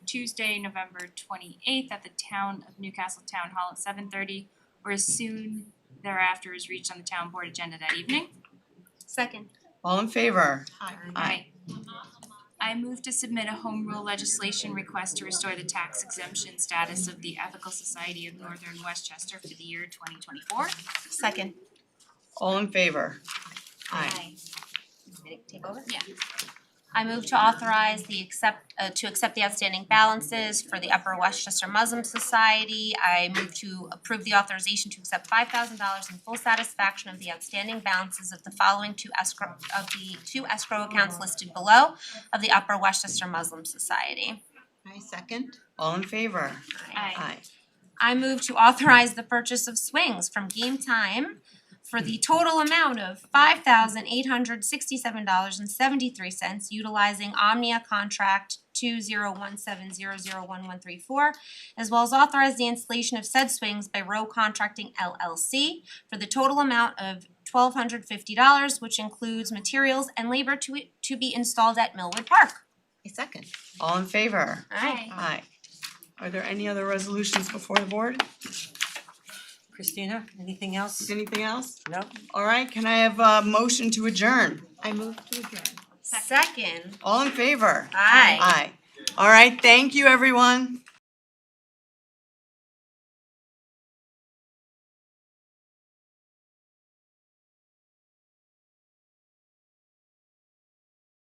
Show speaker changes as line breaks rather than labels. Tuesday, November twenty eighth at the town of Newcastle Town Hall at seven thirty or as soon thereafter is reached on the town board agenda that evening.
Second.
All in favor? Aye.
Aye. I move to submit a home rule legislation request to restore the tax exemption status of the Ethical Society of Northern Westchester for the year twenty twenty four.
Second.
All in favor?
Take over?
Yeah.
I move to authorize the accept, uh, to accept the outstanding balances for the Upper Westchester Muslim Society. I move to approve the authorization to accept five thousand dollars in full satisfaction of the outstanding balances of the following two escrow, of the two escrow accounts listed below of the Upper Westchester Muslim Society.
I second.
All in favor?
Aye.
I move to authorize the purchase of swings from Game Time for the total amount of five thousand eight hundred sixty-seven dollars and seventy-three cents utilizing Omnia contract two zero one seven zero zero one one three four, as well as authorize the installation of said swings by Row Contracting LLC for the total amount of twelve hundred fifty dollars, which includes materials and labor to to be installed at Millwood Park.
I second.
All in favor?
Alright.
Aye. Are there any other resolutions before the board?
Christina, anything else?
Anything else?
No?
All right, can I have a motion to adjourn?
I move to adjourn.
Second.
All in favor?
Aye.
Aye. All right, thank you, everyone.